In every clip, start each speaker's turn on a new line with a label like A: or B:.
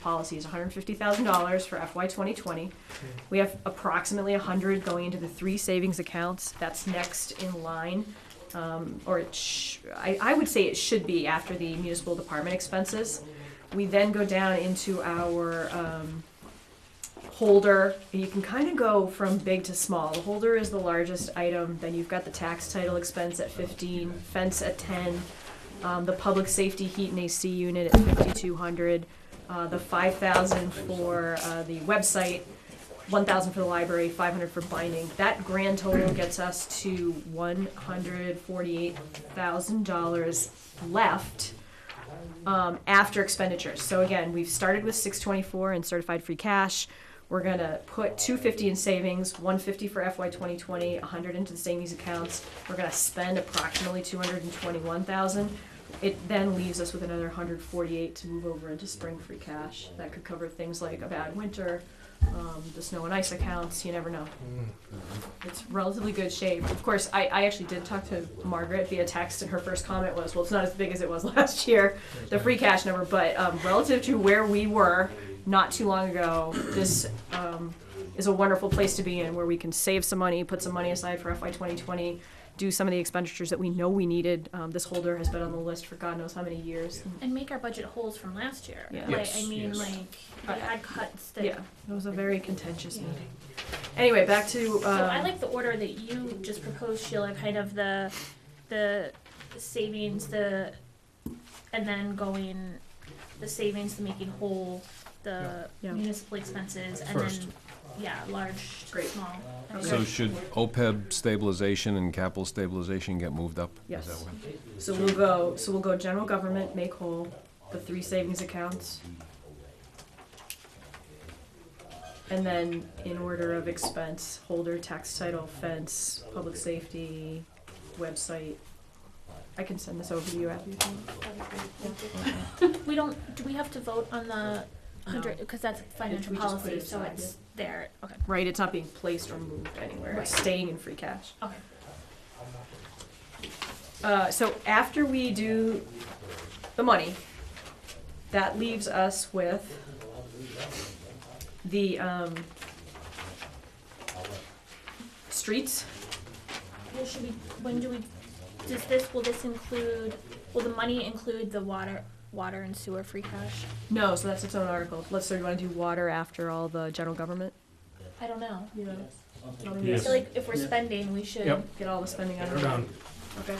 A: policies, hundred fifty thousand dollars for FY twenty twenty. We have approximately a hundred going into the three savings accounts, that's next in line. Um, or it sh- I, I would say it should be after the municipal department expenses. We then go down into our, um, holder, and you can kind of go from big to small. The holder is the largest item, then you've got the tax title expense at fifteen, fence at ten, um, the public safety heat and AC unit at fifty-two hundred, uh, the five thousand for, uh, the website, one thousand for the library, five hundred for binding. That grand total gets us to one hundred forty-eight thousand dollars left um, after expenditures. So again, we've started with six twenty-four in certified free cash. We're gonna put two fifty in savings, one fifty for FY twenty twenty, a hundred into the savings accounts. We're gonna spend approximately two hundred and twenty-one thousand. It then leaves us with another hundred forty-eight to move over into spring free cash. That could cover things like a bad winter, um, the snow and ice accounts, you never know. It's relatively good shape. Of course, I, I actually did talk to Margaret via text and her first comment was, well, it's not as big as it was last year the free cash number, but um, relative to where we were not too long ago, this um, is a wonderful place to be in where we can save some money, put some money aside for FY 2020, do some of the expenditures that we know we needed. Um, this holder has been on the list for God knows how many years.
B: and make our budget holes from last year.
A: Yeah.
B: Like,
C: Yes,
B: I mean,
C: yes.
B: like, we had cuts that.
A: Yeah, it was a very contentious meeting. Anyway, back to. Um,
B: So I like the order that you just proposed, Sheila, kind of the, the savings, the, and then going, the savings, the making whole, the
A: Yeah. Yeah.
B: municipal expenses, and
C: First.
B: then, yeah, large to
A: Great.
B: small. I
A: Okay.
D: So
B: agree.
D: should OPEB stabilization and capital stabilization get moved up? Is
A: Yes.
D: that what-
A: So we'll go, so we'll go general government, make whole, the three savings accounts. And then in order of expense, holder, tax title, fence, public safety, website. I can send this over to you after you.
B: We don't, do we have to vote on the hundred, because that's financial
A: we just put
B: policy,
A: it
B: so
A: aside,
B: it's there, okay,
A: Right, it's not being placed or moved anywhere, it's
B: Right.
A: staying in free cash.
B: okay.
A: Uh, so after we do the money, that leaves us with the, um, streets.
B: Well, should we, when do we, does this, will this include, will the money include the water, water and sewer free cash?
A: No, so that's its own article. Let's, so you wanna do water after all the general government?
B: I don't know.
A: Yeah.
B: I
C: Yes.
B: feel like if we're spending, we should.
C: Yep.
A: Get all the spending out of
C: They're
A: the way.
C: done.
A: Okay.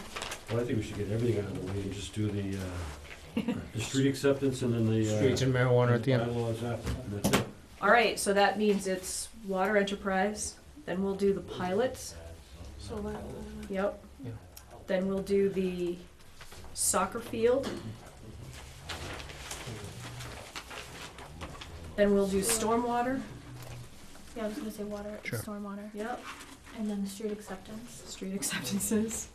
E: Well, I think we should get everything out of the way and just do the, uh, the street acceptance and then the, uh.
C: Streets and marijuana at the end.
E: Bylaws after, and that's it.
A: All right, so that means it's water enterprise, then we'll do the pilots. Yep.
C: Yeah.
A: Then we'll do the soccer field. Then we'll do stormwater,
B: Yeah, I was gonna say water,
C: Sure.
B: stormwater,
A: yep,
B: and then street acceptance.
A: street acceptances,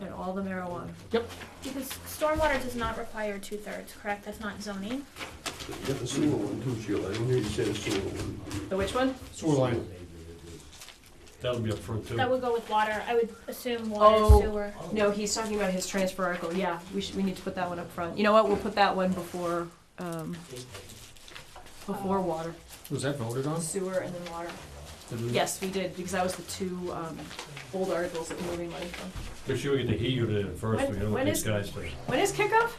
A: and all the marijuana.
B: Because stormwater does not require two thirds, correct? That's not zoning.
F: You got the sewer one too, Sheila, I didn't hear you say the sewer one.
A: The which one?
C: Sewer line.
E: That'll be up front too.
B: That would go with water. I would assume water,
A: Oh.
B: sewer.
A: No, he's talking about his transfer article, yeah, we should, we need to put that one up front. You know what, we'll put that one before, um, before water,
C: Was that voted on?
A: sewer and then water.
E: Did we-
A: Yes, we did, because that was the two, um, old articles that we were moving money from.
E: Make sure we get the heat unit in first,
A: When-
E: we don't
A: when
E: want
A: is-
E: these guys to,
A: When is kickoff?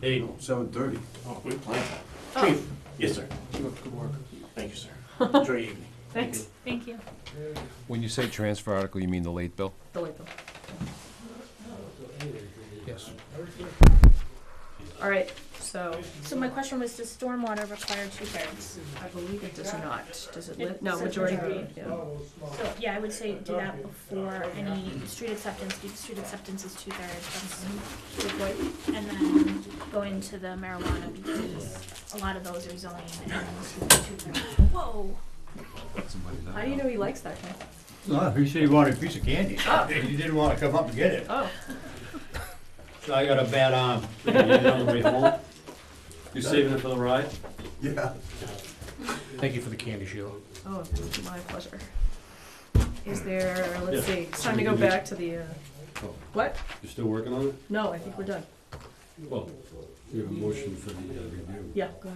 E: hey,
F: Seven thirty.
G: Oh, we plan.
A: Oh.
G: Chief? Yes, sir.
F: Good work.
G: Thank you, sir. Enjoy your evening.
A: Thanks.
B: Thank you.
D: When you say transfer article, you mean the late bill?
A: The late bill.
C: Yes.
A: All right, so
B: So my question was, does stormwater require two thirds?
A: I believe it does not. Does it live?
B: It
A: No,
B: says
A: majority
B: majority.
A: vote, yeah.
B: So, yeah, I would say do that before any street acceptance, because street acceptance is two thirds.
A: Good point.
B: And then go into the marijuana, because a lot of those are zoning and two thirds. Whoa.
A: How do you know he likes that guy?
G: No, he said he wanted a piece of candy. He didn't wanna come up and get it.
A: Oh,
G: So I got a bad arm.
E: you get it on the way home? You saving it for the ride?
F: Yeah.
C: Thank you for the candy, Sheila.
A: oh, my pleasure. Is there, let's
E: Yeah.
G: Oh.
A: see, it's time to go back to the, uh, what?
E: You still working on it?
A: No, I think we're done.
H: Well, we have a motion for the uh, review.
E: uh, Yeah, go ahead.